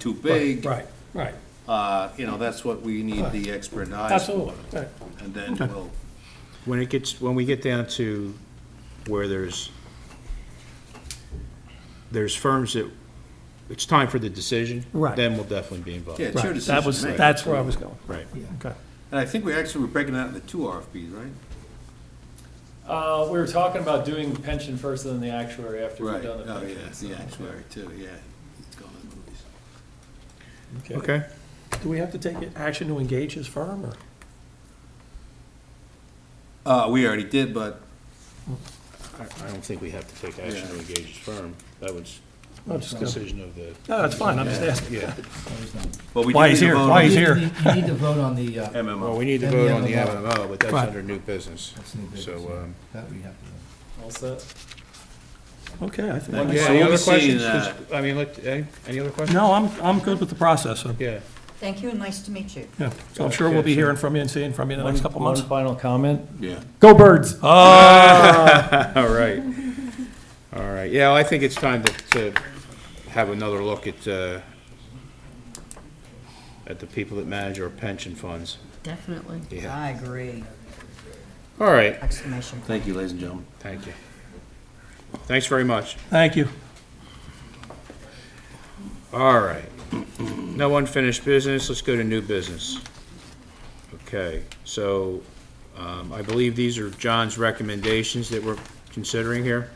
too big. Right, right, Uh, you know, that's what we need the expert eyes for. absolutely, right. And then we'll, When it gets, when we get down to where there's, there's firms that, it's time for the decision. Right. Then we'll definitely be involved. yeah, it's your Right, decision That was, to make. that's where I was going. Right. Okay. And I think we actually were breaking out into two RFPs, right? Uh, we were talking about doing pension first and then the actuary after we've Right, done the oh, pension. yeah, it's so- the actuary too, yeah. He's gone to the movies. Okay. Do we have to take action to engage his firm, or? Uh, we already did, but, I I don't think we have to take action to engage the firm. That was No, just the gonna- decision of the, No, that's fine, I'm just asking. yeah. well, we Why did he's need to here, vote why on he's the here. You need- you need to vote on the, uh, Well, MMO. we need to And the vote on the MMO. MMO, but that's Right. under new business. that's new business. So, um, That we have to do. All set? Okay, I think. Yeah, so you other haven't seen, questions? uh, I mean, let- any any other questions? No, I'm, I'm good with the process, so, Yeah. Thank you and nice to meet you. yeah, so I'm sure we'll be hearing from you and seeing from you in the next couple One- months. One final comment? Yeah. Go Birds! All right. All right. Yeah, I think it's time to, to have another look at, uh, at the people that manage our pension funds. Definitely. Yeah. I agree. All right. Exclamation point. Thank you, ladies and gentlemen. Thank you. Thanks very much. Thank you. All right. No unfinished business. Let's go to new business. Okay, so, um, I believe these are John's recommendations that we're considering here.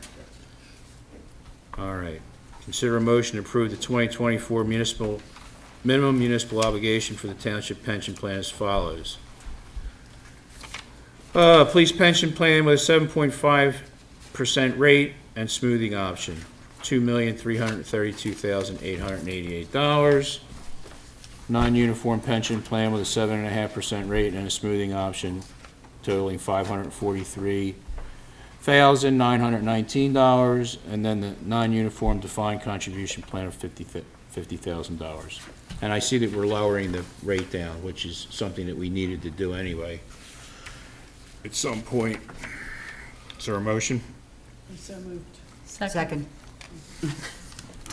All right. Consider a motion to approve the 2024 municipal, minimum municipal obligation for the township pension plan as follows. Uh, Police pension plan with a 7.5% rate and smoothing option, $2,332,888. Non-uniform pension plan with a 7.5% rate and a smoothing option totaling $543,919. And then the non-uniform defined contribution plan of 50 th- $50,000. And I see that we're lowering the rate down, which is something that we needed to do anyway at some point. Is there a motion? Second.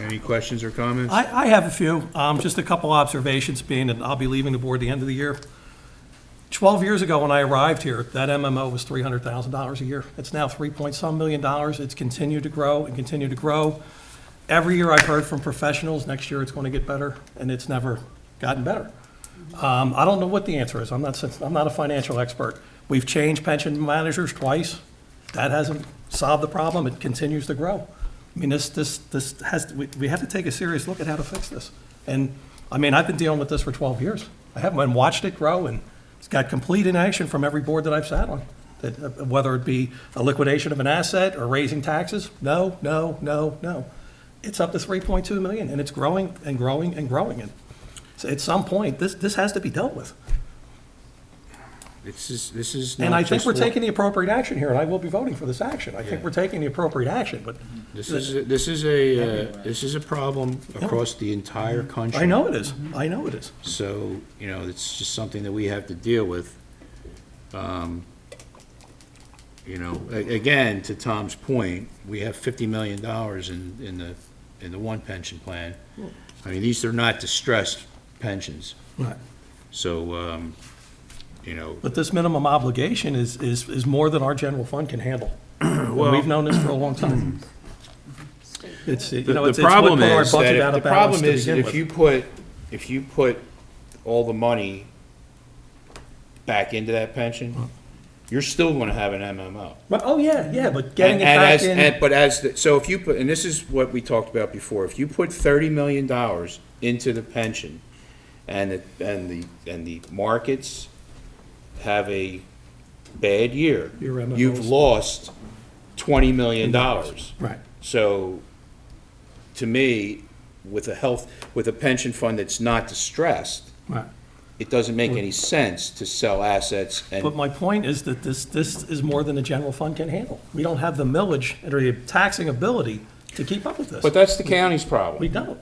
Any questions or comments? I, I have a few, um, just a couple observations being, and I'll be leaving the board the end of the year. Twelve years ago, when I arrived here, that MMO was three hundred thousand dollars a year. It's now three point some million dollars. It's continued to grow and continue to grow. Every year I've heard from professionals, next year it's gonna get better, and it's never gotten better. Um, I don't know what the answer is. I'm not, I'm not a financial expert. We've changed pension managers twice. That hasn't solved the problem. It continues to grow. I mean, this, this, this has, we, we have to take a serious look at how to fix this. And, I mean, I've been dealing with this for twelve years. I haven't, and watched it grow, and it's got complete inaction from every board that I've sat on. That, uh, whether it be a liquidation of an asset or raising taxes, no, no, no, no. It's up to three point two million, and it's growing and growing and growing. And so at some point, this, this has to be dealt with. This is, this is And not I think just we're wa- taking the appropriate action here, and I will be voting for this action. I think Yeah. Mm-hmm. we're taking the appropriate action, but This is, this is a, uh, this is a problem across the entire country. I know it is. Mm-hmm. I know it is. So, you know, it's just something that we have to deal with. Um, You know, a- again, to Tom's point, we have fifty million dollars in, in the, in the one pension plan. I mean, these are not distressed pensions, Right. so, um, you know, But this minimum obligation is, is, is more than our general fund can handle. And Well- Mm-hmm. We've known this for a long time. It's, you The- know, the it's it's what problem put our is that budget if- out the of balance problem to is begin if with. you put, if you put all the money back into that pension, you're still gonna have an MMO. But- Oh, yeah, yeah, but getting it And- and back as- in, and- But as, the- so if you put, and this is what we talked about before, if you put thirty million dollars into the pension and it, and the, and the markets have a bad year, Your MMOs. you've lost twenty million dollars. right, So, to me, with a health, with a pension fund that's not distressed, right. it doesn't make any sense to sell assets But and, my point is that this, this is more than the general fund can handle. We don't have the millage or the taxing ability to keep up with this. but that's the county's We problem. don't.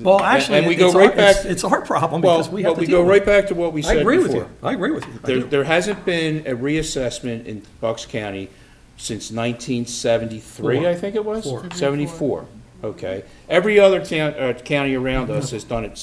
Well, actually, and we go it's our, right back- it's, it's our problem Well, because we have to but we deal go with right it. back to what we I said agree with you. before. I agree with you. I There, do. there hasn't been a reassessment in Bucks County since nineteen seventy-three, Four. I think it was? Four. Seventy-four, okay. Every other town, uh, county around us has done it